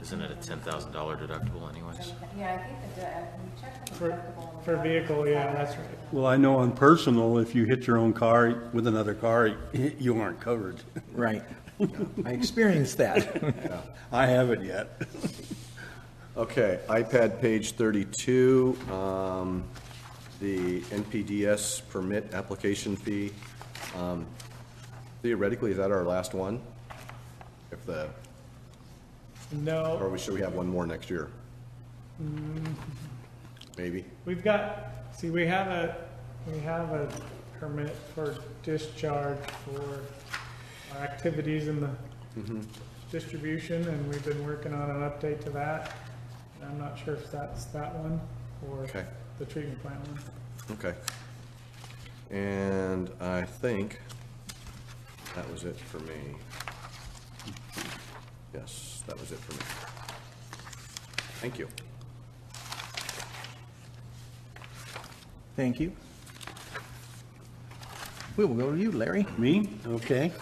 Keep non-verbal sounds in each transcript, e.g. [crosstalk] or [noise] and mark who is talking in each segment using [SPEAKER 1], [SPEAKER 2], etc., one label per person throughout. [SPEAKER 1] Isn't it a ten thousand dollar deductible anyways?
[SPEAKER 2] Yeah, I think the, de- uh, we checked the
[SPEAKER 3] For-
[SPEAKER 2] deductible. and
[SPEAKER 3] for
[SPEAKER 2] the-
[SPEAKER 3] vehicle, yeah, that's right.
[SPEAKER 4] Well, I know on personal, if you hit your own car with another car, [laughs] you aren't covered.
[SPEAKER 5] Right. I experienced that.
[SPEAKER 4] [laughs] I haven't yet.
[SPEAKER 6] Okay, iPad page 32, um, the NPDS permit application fee. Um, Theoretically, is that our last one? If the, or
[SPEAKER 3] No,
[SPEAKER 6] we- should we have one more next year? Maybe?
[SPEAKER 3] we've got, see, we have a, we have a permit for discharge for our activities in the distribution, and we've been working on an update to that. And I'm not sure if that's that one or
[SPEAKER 6] Okay.
[SPEAKER 3] the treatment plant one.
[SPEAKER 6] Okay. And I think that was it for me. Yes, that was it for me. Thank you.
[SPEAKER 5] Thank you. We will go to you, Larry.
[SPEAKER 4] Me? Okay.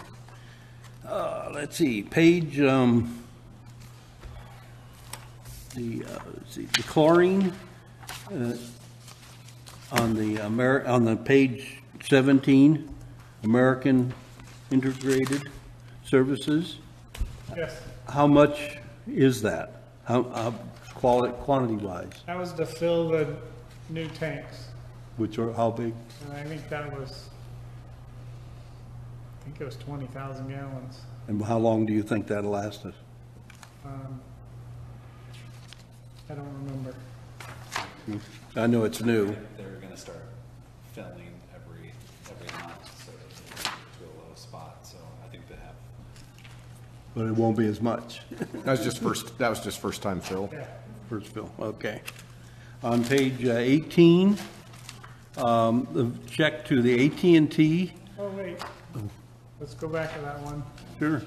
[SPEAKER 4] Uh, let's see, page, um, the, uh, let's see, the chlorine, uh, on the Amer, on the page seventeen, American Integrated Services,
[SPEAKER 3] Yes,
[SPEAKER 4] how much is that? How, how, quality, quantity-wise,
[SPEAKER 3] that was to fill the new tanks,
[SPEAKER 4] which are, how big?
[SPEAKER 3] and I think that was, I think it was twenty thousand gallons.
[SPEAKER 4] And how long do you think that'll last us?
[SPEAKER 3] Um, I don't remember.
[SPEAKER 4] I know it's new.
[SPEAKER 7] They're gonna start filling every, every month, so they can get to a low spot, so I think they have
[SPEAKER 4] But it won't be as much,
[SPEAKER 6] That was just first, that was just first time Phil.
[SPEAKER 4] first fill, okay. On page uh, 18, um, the check to the at and T.
[SPEAKER 3] Oh, wait. Let's go back to that one.
[SPEAKER 4] Sure.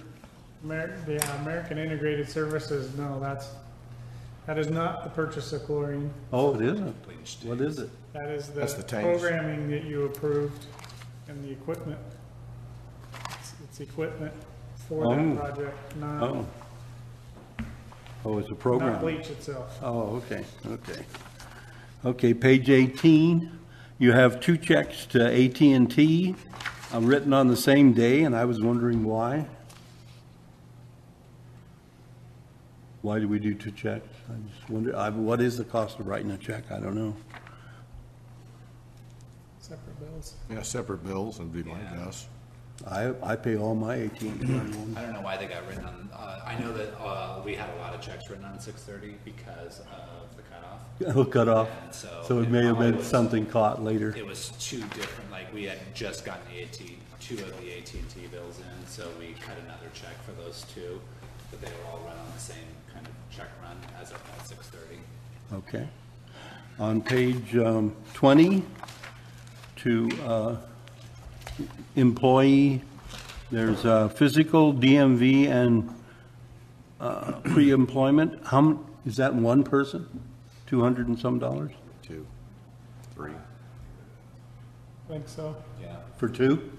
[SPEAKER 3] Amer, the uh, American Integrated Services, no, that's, that is not the purchase of chlorine.
[SPEAKER 4] Oh, it isn't. What is it?
[SPEAKER 3] That is the
[SPEAKER 6] That's the tanks.
[SPEAKER 3] programming that you approved and the equipment. It's- It's equipment for
[SPEAKER 4] Oh.
[SPEAKER 3] that project, not,
[SPEAKER 4] Oh. Oh, it's a
[SPEAKER 3] not
[SPEAKER 4] program.
[SPEAKER 3] bleach itself.
[SPEAKER 4] Oh, okay, okay. Okay, page 18, you have two checks to at and T, uh written on the same day, and I was wondering why. Why do we do two checks? I just wonder, I, what is the cost of writing a check? I don't know.
[SPEAKER 3] Separate bills.
[SPEAKER 6] Yeah, separate bills would be my guess.
[SPEAKER 4] I, I pay all my at and
[SPEAKER 7] I don't know why they got written on, uh, I know that, uh, we had a lot of checks written on six thirty because of the cutoff. [clears throat]
[SPEAKER 4] T hook it off.
[SPEAKER 7] And so
[SPEAKER 4] So it
[SPEAKER 7] it
[SPEAKER 4] may have
[SPEAKER 7] probably
[SPEAKER 4] been
[SPEAKER 7] was-
[SPEAKER 4] something caught later.
[SPEAKER 7] It was two different, like, we had just gotten the AT, two of the AT&T bills in, so we cut another check for those two, but they were all run on the same kind of check run as of at six thirty.
[SPEAKER 4] Okay. On page um, 20, to uh, employee, there's uh, physical, DMV, and uh, pre-employment. How, m- is that one person? 200 and some dollars
[SPEAKER 6] Two, three.
[SPEAKER 3] I think so.
[SPEAKER 7] Yeah,
[SPEAKER 4] for two?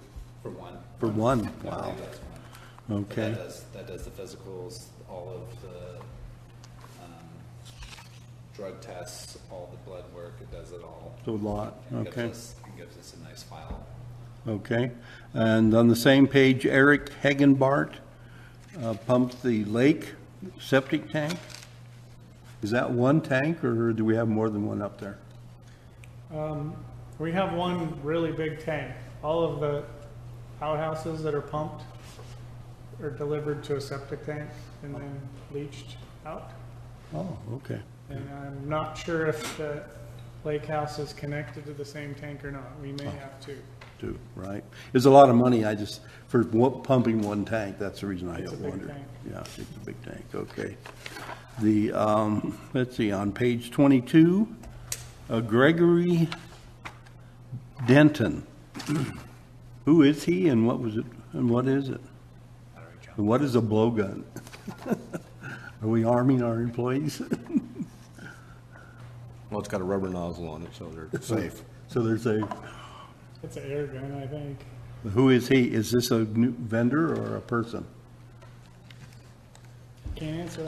[SPEAKER 7] for one.
[SPEAKER 4] For one?
[SPEAKER 7] I
[SPEAKER 4] Wow.
[SPEAKER 7] believe that's one. But
[SPEAKER 4] Okay.
[SPEAKER 7] That does, that does the physicals, all of the, um, drug tests, all the blood work, it does it all.
[SPEAKER 4] So a lot,
[SPEAKER 7] And gives
[SPEAKER 4] okay,
[SPEAKER 7] us- and Gives us a nice file.
[SPEAKER 4] okay. And on the same page, Eric Hagenbart uh, pumped the lake septic tank. Is that one tank, or do we have more than one up there?
[SPEAKER 3] Um, We have one really big tank. All of the outhouses that are pumped are delivered to a septic tank and then leached out.
[SPEAKER 4] Oh, okay.
[SPEAKER 3] And I'm not sure if the lake house is connected to the same tank or not. We may have to.
[SPEAKER 4] Two, right? It's a lot of money, I just, for one- pumping one tank, that's the reason I
[SPEAKER 3] It's a big
[SPEAKER 4] wondered.
[SPEAKER 3] tank.
[SPEAKER 4] Yeah, it's a big tank, okay. The, um, let's see, on page 22, uh, Gregory Denton. [clears throat] Who is he and what was it, and what is it? And what is a blowgun? [laughs] Are we arming our employees? [laughs]
[SPEAKER 6] Well, it's got a rubber nozzle on it, so they're safe.
[SPEAKER 4] So they're saying,
[SPEAKER 3] It's an air gun, I think.
[SPEAKER 4] who is he? Is this a new vendor or a person?